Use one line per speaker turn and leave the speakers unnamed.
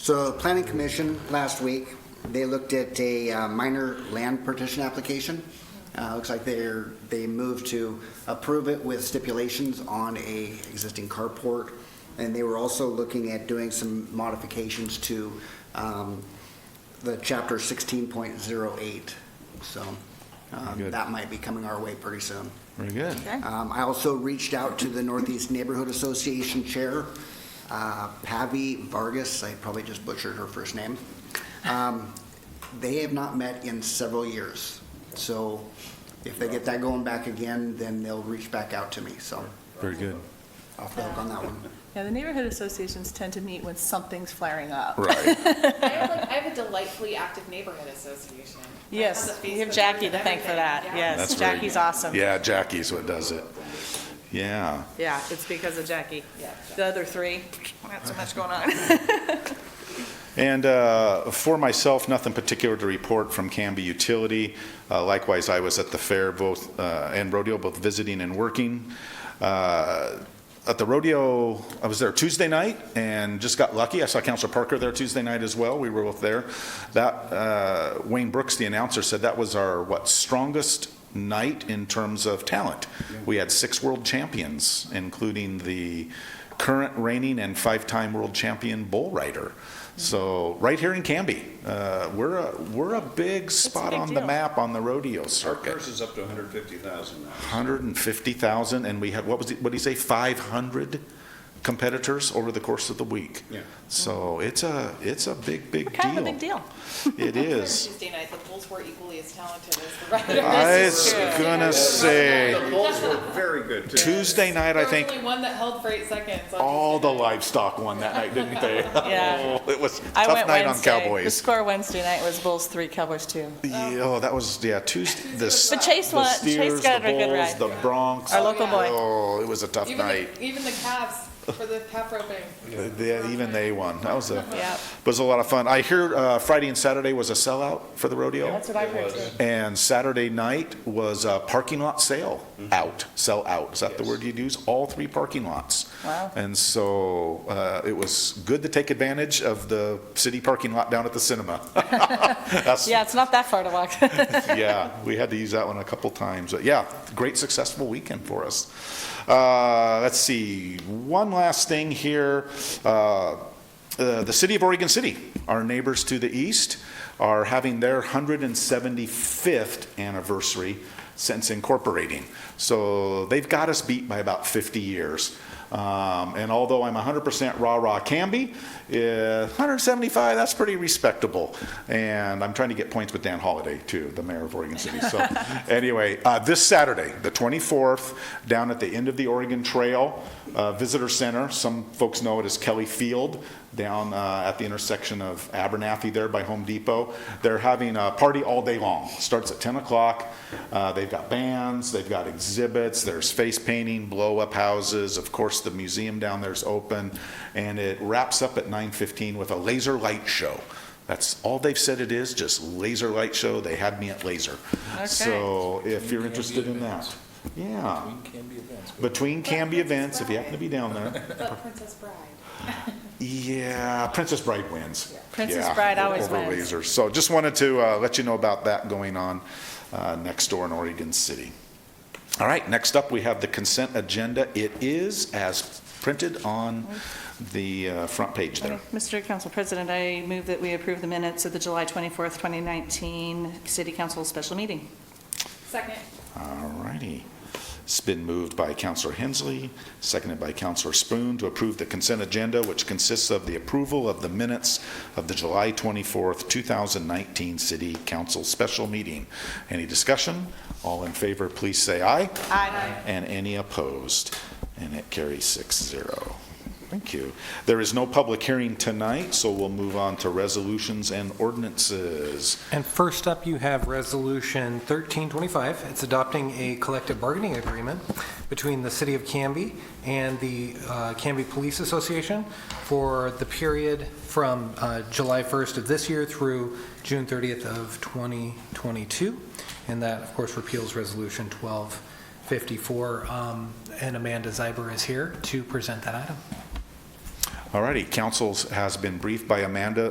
So Planning Commission, last week, they looked at a uh, minor land partition application. Uh, Looks like they're, they moved to approve it with stipulations on a existing carport. And they were also looking at doing some modifications to um, the chapter 16.08. So um,
Good.
that might be coming our way pretty soon.
Very good.
Um, I also reached out to the Northeast Neighborhood Association Chair, uh, Pavi Vargas, I probably just butchered her first name. Um, They have not met in several years, so if they get that going back again, then they'll reach back out to me, so
Very good.
off the hook on that one.
Yeah, the neighborhood associations tend to meet when something's flaring up.
Right.
I have like, I have a delightfully active neighborhood association.
Yes,
Like, on the
you have
Facebook
Jackie
group
to
and
thank for
everything,
that,
yeah.
yes.
That's very
Jackie's
good.
awesome.
Yeah, Jackie's what does it. Yeah.
Yeah, it's because of Jackie.
Yeah.
The other three, not so much going on.
And uh, for myself, nothing particular to report from Canby Utility. Uh, Likewise, I was at the fair both, uh, and rodeo, both visiting and working. Uh, At the rodeo, I was there Tuesday night and just got lucky. I saw Counselor Parker there Tuesday night as well. We were both there. That, uh, Wayne Brooks, the announcer, said that was our, what, strongest night in terms of talent. We had six world champions, including the current reigning and five-time world champion bull rider.
Mm-hmm.
So right here in Canby, uh, we're a, we're a big spot
big
on the
deal.
map on the rodeo
Our
circuit.
purse is up to 150,000 now.
150,000, and we had, what was it, what did he say, 500 competitors over the course of the week.
Yeah.
So it's a, it's a big, big deal.
Kind of a big deal.
It is.
Tuesday night, the Bulls were equally as talented as the Riders.
I
is
was
true.
gonna say,
The Bulls were very good, too.
Tuesday night,
There
I
was
think,
only one that held for eight seconds. on
all the
Tuesday night.
livestock won that night, didn't they?
Yeah.
Oh, It was a
I
tough
went
night on
Wednesday. The
Cowboys.
score Wednesday night was Bulls three, Cowboys two.
Yeah, Oh, that was, yeah, Tuesday, the s-
But Chase
the
won,
Steers,
Chase
the
got a good
Bulls,
ride.
the Bronx.
Our local boy.
Oh, it was a tough
Even
night.
the, even the Cavs for the half roping.
Yeah, even they won. That was a,
Yep.
was a lot of fun. I hear uh, Friday and Saturday was a sellout for the rodeo.
what I heard too.
And Saturday night was a parking lot sale
Mm-hmm.
out, sell out. Is that the word you'd use? All three parking lots.
Wow.
And so uh, it was good to take advantage of the city parking lot down at the cinema. That's-
Yeah, it's not that far to walk.
yeah, we had to use that one a couple times. But yeah, great successful weekend for us. Uh, let's see, one last thing here. Uh, uh, the city of Oregon City, our neighbors to the east, are having their 175th anniversary since incorporating. So they've got us beat by about 50 years. Um, and although I'm 100% rah rah Canby, uh, 175, that's pretty respectable. And I'm trying to get points with Dan Holliday, too, the mayor of Oregon City. So anyway, uh, this Saturday, the 24th, down at the end of the Oregon Trail uh, Visitor Center, some folks know it as Kelly Field, down uh, at the intersection of Abernathy there by Home Depot. They're having a party all day long. Starts at 10 o'clock. Uh, They've got bands, they've got exhibits, there's face painting, blow-up houses. Of course, the museum down there's open. And it wraps up at 9:15 with a laser light show. That's all they've said it is, just laser light show. They had me at laser. So if you're interested in that, yeah. Between Canby events, if you happen to be down there.
But Princess Bride.
Yeah, Princess Bride wins.
Princess
Yeah,
Bride always
over
wins.
Laser. So just wanted to uh, let you know about that going on uh, next door in Oregon City. All right, next up, we have the consent agenda. It is as printed on the uh, front page there.
Mr. Council President, I move that we approve the minutes of the July 24th, 2019 City Council Special Meeting.
Second.
All righty. It's been moved by Counselor Hensley, seconded by Counselor Spoon to approve the consent agenda, which consists of the approval of the minutes of the July 24th, 2019 City Council Special Meeting. Any discussion? All in favor, please say aye.
Aye.
And any opposed? And it carries 6-0. Thank you. There is no public hearing tonight, so we'll move on to resolutions and ordinances.
And first up, you have Resolution 1325. It's adopting a collective bargaining agreement between the City of Canby and the uh, Canby Police Association for the period from uh, July 1st of this year through June 30th of 2022. And that, of course, repeals Resolution 1254. Um, And Amanda Zeiber is here to present that item.
All righty, councils has been briefed by Amanda